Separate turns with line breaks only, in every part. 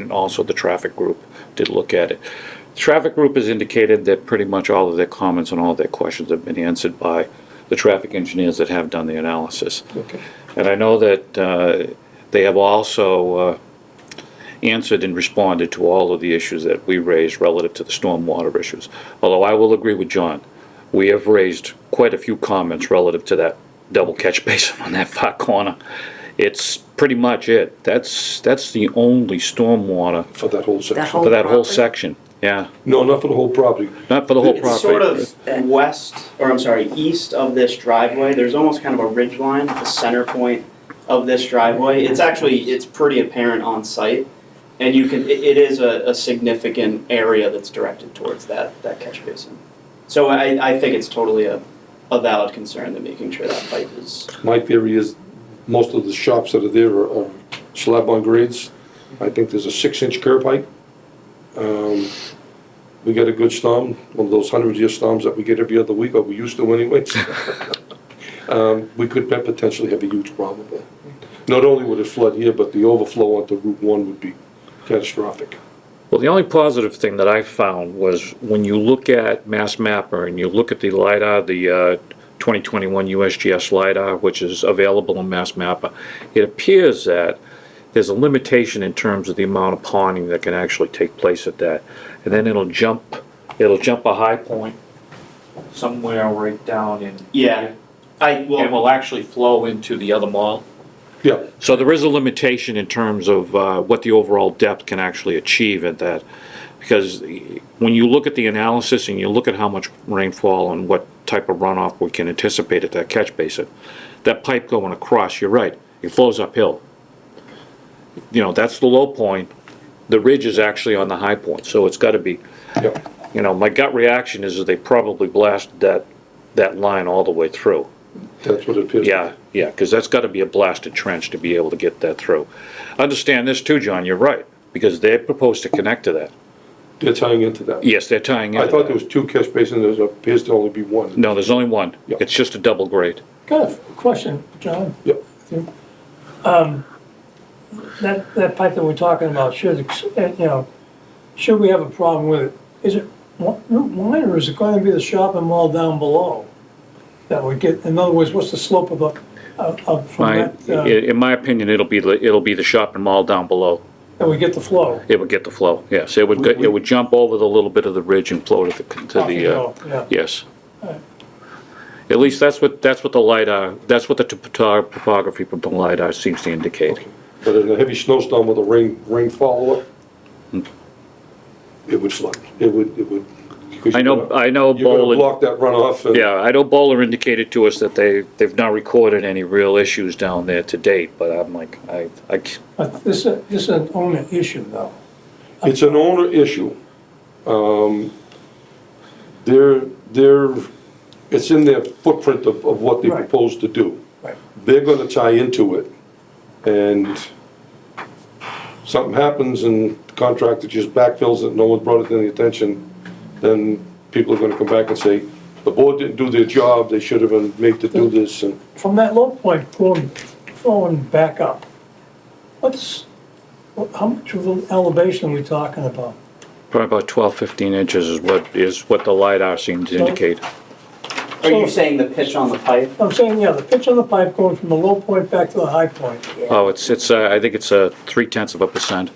And also the traffic group did look at it. The Traffic group has indicated that pretty much all of their comments and all of their questions have been answered by the traffic engineers that have done the analysis.
Okay.
And I know that uh, they have also uh, answered and responded to all of the issues that we raised relative to the stormwater issues. Although I will agree with John, we have raised quite a few comments relative to that double catch basin on that far corner. It's pretty much it. That's, that's the only stormwater
For that whole section?
That whole-
for that whole
property?
section, yeah.
No, not for the whole property.
Not for the whole
It's sort
property.
Uh,
of west, or I'm sorry, east of this driveway. There's almost kind of a ridge line at the center point of this driveway. It's actually, it's pretty apparent on site. And you can, it, it is a, a significant area that's directed towards that, that catch basin. So I, I think it's totally a, a valid concern that making sure that pipe is.
My theory is most of the shops that are there are are slab on grades. I think there's a six-inch curb height. Um, We got a good storm, one of those hundred-year storms that we get every other week, or we used to anyway. Um, We could pe- potentially have a huge problem there. Not only would it flood here, but the overflow onto Route One would be catastrophic.
Well, the only positive thing that I found was when you look at Mass Mapper and you look at the LiDAR, the uh, 2021 USGS LiDAR, which is available in Mass Mapper, it appears that there's a limitation in terms of the amount of pawning that can actually take place at that. And then it'll jump, it'll jump a high point somewhere right down in.
Yeah. I,
And
well,
will actually flow into the other mall.
Yeah,
So there is a limitation in terms of uh, what the overall depth can actually achieve at that. Because when you look at the analysis and you look at how much rainfall and what type of runoff we can anticipate at that catch basin, that pipe going across, you're right, it flows uphill. You know, that's the low point. The ridge is actually on the high point, so it's got to be,
yeah.
you know, my gut reaction is that they probably blasted that, that line all the way through.
That's what it appears.
Yeah, yeah, because that's got to be a blasted trench to be able to get that through. Understand this too, John, you're right, because they're proposed to connect to that.
They're tying into that.
Yes, they're tying in.
I thought there was two catch basins, there appears to only be one.
No, there's only one.
Yeah.
It's just a double grade.
Got a question, John.
Yeah.
Um, That, that pipe that we're talking about, should, ex- uh, you know, should we have a problem with it? Is it one- Route 1 or is it going to be the shopping mall down below? That would get, in other words, what's the slope of, the- of, of-
My,
from
i-
that, uh,
in my opinion, it'll be, the- it'll be the shopping mall down below.
that we get the flow?
It would get the flow, yes. It would, go- it would jump over the little bit of the ridge and flow to the, to
Off
the, uh,
hill, yeah.
yes. At least that's what, that's what the LiDAR, that's what the topo- topography from the LiDAR seems to indicate.
But in a heavy snowstorm with a rain, rain follow-up, it would flood, it would, it would. 'cause
I know,
you're gonna-
I know
You're gonna
Boland.
block that runoff and.
Yeah, I know Bowler indicated to us that they, they've not recorded any real issues down there to date, but I'm like, I, I, c-
But this, is- this is an owner issue though.
It's an owner issue. Um, They're, they're, it's in their footprint of, of what they
Right.
propose to do.
Right.
They're gonna tie into it, and something happens and the contractor just backfills it, no one brought it to the attention, then people are gonna come back and say, the board didn't do their job, they should have been made to do this, and
From that low point going, going back up, what's, what- how much of an elevation are we talking about?
probably about 12, 15 inches is what, is what the LiDAR seemed to
So-
indicate.
are you saying the pitch on the pipe?
I'm saying, yeah, the pitch on the pipe going from the low point back to the high point.
Oh, it's, it's, uh, I think it's a three tenths of a percent.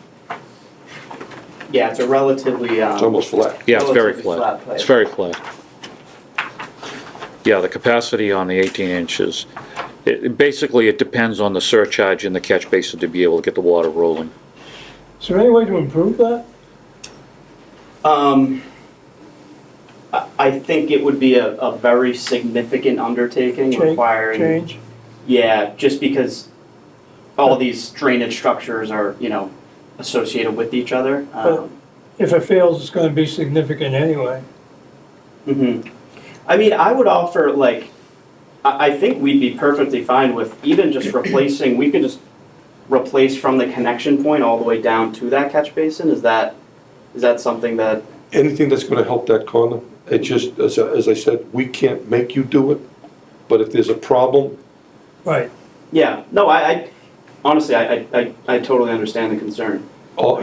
Yeah, it's a relatively, um.
it's almost flat.
Yeah, it's very
Relatively
flat.
flat pipe.
It's very flat. Yeah, the capacity on the 18 inches, it, it basically, it depends on the surcharge in the catch basin to be able to get the water rolling.
Is there any way to improve that?
Um, I, I think it would be a, a very significant undertaking
Change-
requiring.
Change?
Yeah, just because all these drainage structures are, you know, associated with each other. Um,
If it fails, it's gonna be significant anyway.
mhm. I mean, I would offer like, I, I think we'd be perfectly fine with even just replacing, we could just replace from the connection point all the way down to that catch basin. Is that, is that something that,
anything that's gonna help that corner, it just, as, I- as I said, we can't make you do it, but if there's a problem,
Right.
yeah, no, I, I honestly, I, I- I, I totally understand the concern.
all,